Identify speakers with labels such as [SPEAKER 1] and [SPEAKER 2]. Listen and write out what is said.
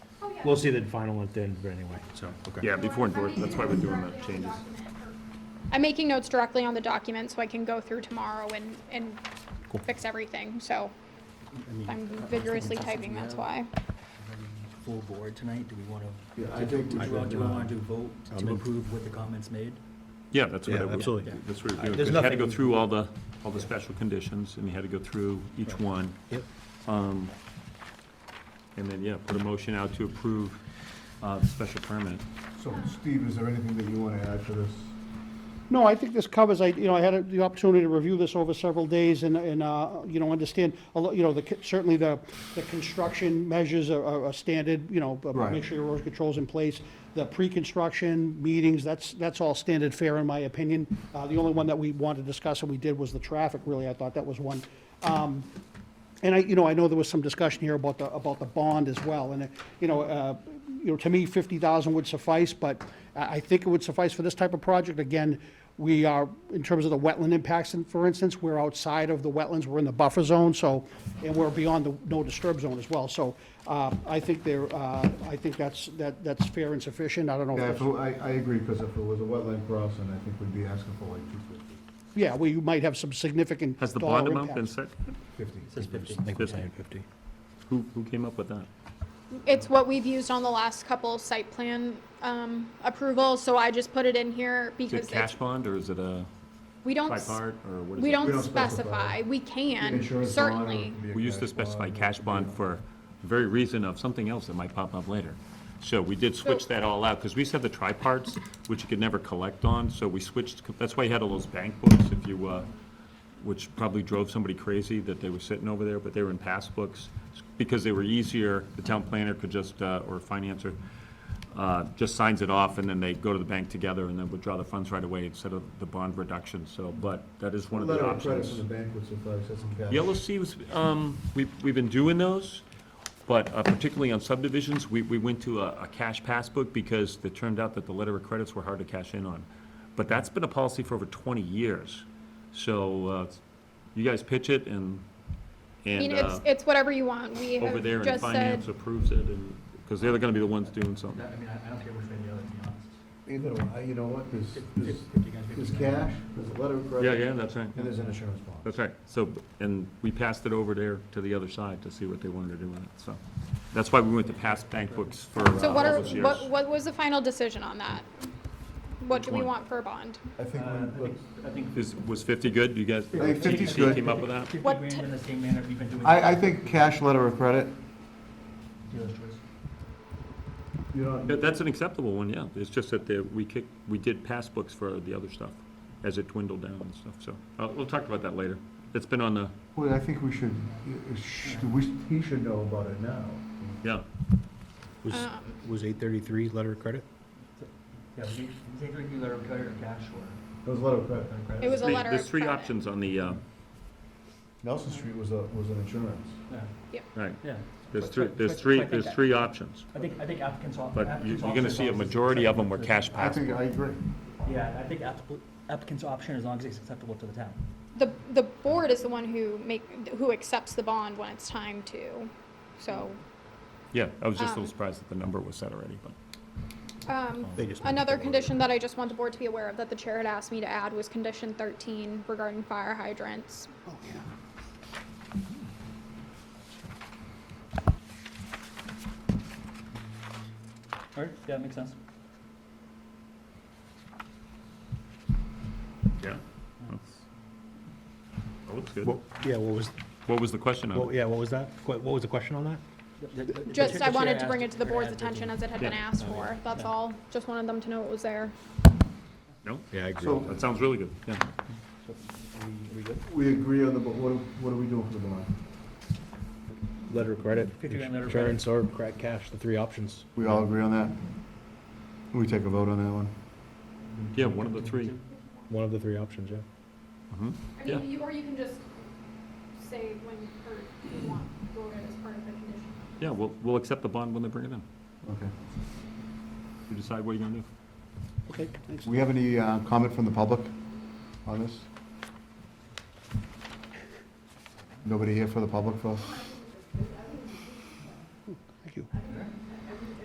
[SPEAKER 1] We'll see the final at the end, but anyway, so, okay.
[SPEAKER 2] Yeah, before endorsement, that's why we're doing the changes.
[SPEAKER 3] I'm making notes directly on the document so I can go through tomorrow and, and fix everything, so I'm vigorously typing, that's why.
[SPEAKER 4] Full board tonight, do we want to?
[SPEAKER 5] Yeah, I think
[SPEAKER 4] Do
[SPEAKER 5] we
[SPEAKER 4] we want
[SPEAKER 5] should,
[SPEAKER 4] to
[SPEAKER 5] uh,
[SPEAKER 4] vote
[SPEAKER 5] I'm
[SPEAKER 4] to
[SPEAKER 5] in-
[SPEAKER 4] approve what the comments made?
[SPEAKER 2] Yeah, that's what I
[SPEAKER 1] Yeah,
[SPEAKER 2] would,
[SPEAKER 1] absolutely.
[SPEAKER 2] that's what we're doing,
[SPEAKER 1] There's
[SPEAKER 2] 'cause you had to
[SPEAKER 1] nothing-
[SPEAKER 2] go through all the, all the special conditions, and you had to go through each one. Um,
[SPEAKER 1] Yep.
[SPEAKER 2] And then, yeah, put a motion out to approve, uh, the special permit.
[SPEAKER 5] So Steve, is there anything that you want to add to this?
[SPEAKER 6] No, I think this covers, I, you know, I had a- the opportunity to review this over several days and, and, uh, you know, understand, a lo- you know, the, c- certainly the, the construction measures are- are, are standard, you know, but
[SPEAKER 5] Right.
[SPEAKER 6] make sure your erosion control's in place. The pre-construction meetings, that's, that's all standard fare in my opinion. Uh, the only one that we wanted to discuss and we did was the traffic, really, I thought that was one. Um, and I, you know, I know there was some discussion here about the, about the bond as well, and, uh, you know, uh, you know, to me, fifty thousand would suffice, but I, I think it would suffice for this type of project. Again, we are, in terms of the wetland impacts, and for instance, we're outside of the wetlands, we're in the buffer zone, so, and we're beyond the no disturb zone as well, so, uh, I think there, uh, I think that's, that, that's fair and sufficient, I don't know. if
[SPEAKER 5] Yeah,
[SPEAKER 6] that's-
[SPEAKER 5] if it- I, I agree, because if it was a wetland crossing, I think we'd be asking for like two fifty,
[SPEAKER 6] Yeah, well, you might have some significant
[SPEAKER 2] Has the
[SPEAKER 6] dollar
[SPEAKER 2] bond amount been
[SPEAKER 6] impacts.
[SPEAKER 2] set?
[SPEAKER 5] fifty.
[SPEAKER 4] Says fifty.
[SPEAKER 1] I think we're saying fifty.
[SPEAKER 2] Who, who came up with that?
[SPEAKER 3] It's what we've used on the last couple site plan, um, approvals, so I just put it in here
[SPEAKER 2] Is it
[SPEAKER 3] because
[SPEAKER 2] cash
[SPEAKER 3] it's,
[SPEAKER 2] bond, or is it a
[SPEAKER 3] we don't, s-
[SPEAKER 2] tripart, or what is it?
[SPEAKER 3] we
[SPEAKER 5] We
[SPEAKER 3] don't
[SPEAKER 5] don't specify.
[SPEAKER 3] specify, we can,
[SPEAKER 5] Insurance bond, or it
[SPEAKER 3] certainly.
[SPEAKER 5] could be a
[SPEAKER 2] We used to
[SPEAKER 5] cash bond,
[SPEAKER 2] specify
[SPEAKER 5] or-
[SPEAKER 2] cash bond for the very reason of something else that might pop up later. So we did switch
[SPEAKER 3] So-
[SPEAKER 2] that all out, because we used to have the triparts, which you could never collect on, so we switched, that's why you had all those bank books, if you, uh, which probably drove somebody crazy that they were sitting over there, but they were in passbooks, because they were easier, the town planner could just, uh, or financer, uh, just signs it off, and then they go to the bank together, and then withdraw the funds right away instead of the bond reduction, so, but that is one of the
[SPEAKER 5] Letter of
[SPEAKER 2] options.
[SPEAKER 5] credit from the bank would suffice, that's some cash.
[SPEAKER 2] Yellow C was, um, we've, we've been doing those, but uh, particularly on subdivisions, we, we went to a, a cash passbook because it turned out that the letter of credits were hard to cash in on. But that's been a policy for over twenty years, so, uh, you guys pitch it and,
[SPEAKER 3] I mean,
[SPEAKER 2] and, uh,
[SPEAKER 3] it's, it's whatever you want, we
[SPEAKER 2] over there
[SPEAKER 3] have
[SPEAKER 2] and
[SPEAKER 3] just said,
[SPEAKER 2] finance approves it and, because they're gonna be the ones doing something.
[SPEAKER 4] I mean, I I don't care which way the other, to be honest.
[SPEAKER 5] Either, way, I- you know what, there's,
[SPEAKER 4] If-
[SPEAKER 5] there's,
[SPEAKER 4] if- if you guys make
[SPEAKER 5] there's
[SPEAKER 4] the-
[SPEAKER 5] cash, there's a letter of
[SPEAKER 2] Yeah,
[SPEAKER 5] credit.
[SPEAKER 2] yeah, that's right,
[SPEAKER 5] And there's an insurance bond.
[SPEAKER 2] that's right, so, and we passed it over there to the other side to see what they wanted to do with it, so. That's why we went to past bank books for uh,
[SPEAKER 3] so
[SPEAKER 2] all
[SPEAKER 3] what are,
[SPEAKER 2] those years.
[SPEAKER 3] what, what was the final decision on that? What
[SPEAKER 2] Which
[SPEAKER 3] do we
[SPEAKER 2] one?
[SPEAKER 3] want for a bond?
[SPEAKER 5] I think,
[SPEAKER 4] Uh, I
[SPEAKER 5] we-
[SPEAKER 4] think- I think
[SPEAKER 2] Is, was fifty good? You guys?
[SPEAKER 5] I think 50 is
[SPEAKER 2] TBC
[SPEAKER 5] good.
[SPEAKER 2] Came up with that?
[SPEAKER 4] fifty
[SPEAKER 3] What
[SPEAKER 4] grand
[SPEAKER 3] t-
[SPEAKER 4] in the same manner we've been doing.
[SPEAKER 5] I, I think cash letter of credit,
[SPEAKER 4] Dealer's choice.
[SPEAKER 5] you know,
[SPEAKER 2] That- That's an acceptable one, yeah. It's just that the, we kicked, we did pass books for the other stuff as it dwindled down and stuff, so. Uh, we'll talk about that later. It's been on the,
[SPEAKER 5] well, I think we should, it- it sh- we, he should know about it now.
[SPEAKER 2] yeah.
[SPEAKER 1] Was, was eight thirty-three letter of credit?
[SPEAKER 4] Yeah, we take a letter of credit or cash or
[SPEAKER 5] It was a letter of credit.
[SPEAKER 4] letter of credit.
[SPEAKER 3] It was a
[SPEAKER 2] They-
[SPEAKER 3] letter
[SPEAKER 2] There's
[SPEAKER 3] of
[SPEAKER 2] three
[SPEAKER 3] credit.
[SPEAKER 2] options on the, uh,
[SPEAKER 5] Nelson Street was a, was an insurance.
[SPEAKER 4] Yeah,
[SPEAKER 2] right.
[SPEAKER 4] Yeah,
[SPEAKER 2] There's
[SPEAKER 4] But-
[SPEAKER 2] three,
[SPEAKER 4] but-
[SPEAKER 2] there's
[SPEAKER 4] but-
[SPEAKER 2] three,
[SPEAKER 4] but I think
[SPEAKER 2] there's
[SPEAKER 4] that-
[SPEAKER 2] three options.
[SPEAKER 4] I think, I think applicants. al-
[SPEAKER 2] But you-
[SPEAKER 4] applicants
[SPEAKER 2] you're gonna
[SPEAKER 4] option
[SPEAKER 2] see a
[SPEAKER 4] is
[SPEAKER 2] majority of them were
[SPEAKER 4] acceptable to-
[SPEAKER 2] cash
[SPEAKER 5] I
[SPEAKER 2] pass.
[SPEAKER 5] think, I agree.
[SPEAKER 4] Yeah, I think applicant- applicant's option, as long as it's acceptable to the town.
[SPEAKER 3] The, the board is the one who make, who accepts the bond when it's time to, so,
[SPEAKER 2] Yeah, I was just a
[SPEAKER 3] Um,
[SPEAKER 2] little surprised that the number was set already, but.
[SPEAKER 4] Mm.
[SPEAKER 3] um,
[SPEAKER 1] They just moved
[SPEAKER 3] Another
[SPEAKER 1] it.
[SPEAKER 3] condition that I just want the board to be aware of that the chair had asked me to add was condition thirteen regarding fire hydrants.
[SPEAKER 6] Oh, yeah.
[SPEAKER 4] All right, yeah, makes sense.
[SPEAKER 2] Yeah. That looks good.
[SPEAKER 1] What, yeah, what was,
[SPEAKER 2] What was the question on
[SPEAKER 1] what,
[SPEAKER 2] it?
[SPEAKER 1] yeah, what was that? Qu- What was the question on that?
[SPEAKER 4] The- the- the
[SPEAKER 3] Just,
[SPEAKER 4] chair-
[SPEAKER 3] I
[SPEAKER 4] the chair
[SPEAKER 3] wanted to bring
[SPEAKER 4] asked
[SPEAKER 3] it to the
[SPEAKER 4] if we're
[SPEAKER 3] board's
[SPEAKER 4] gonna add
[SPEAKER 3] attention
[SPEAKER 4] thirteen.
[SPEAKER 3] as it had been
[SPEAKER 2] Yeah.
[SPEAKER 3] asked for, that's
[SPEAKER 4] Yeah.
[SPEAKER 3] all, just wanted them to know it was there.
[SPEAKER 2] No?
[SPEAKER 1] Yeah, I agree.
[SPEAKER 5] So,
[SPEAKER 2] That sounds really good, yeah.
[SPEAKER 4] Are we- are we good?
[SPEAKER 5] we agree on the, bo- what, what are we doing for the bond?
[SPEAKER 1] Letter of credit,
[SPEAKER 4] Fifty grand letter of credit.
[SPEAKER 1] insurance or crack cash, the three options.
[SPEAKER 5] We all agree on that? Can we take a vote on that one?
[SPEAKER 2] Yeah, one of the three.
[SPEAKER 1] One of the three options, yeah.
[SPEAKER 2] Mhm.
[SPEAKER 3] I
[SPEAKER 2] mean, Yeah.
[SPEAKER 3] you, or you can just say when, or you want, voted as part of the condition.
[SPEAKER 2] Yeah, we'll, we'll accept the bond when they bring it in.
[SPEAKER 5] Okay.
[SPEAKER 2] You decide what you're gonna do.
[SPEAKER 6] Okay, thanks.
[SPEAKER 5] We have any uh, comment from the public on this? Nobody here for the public for us?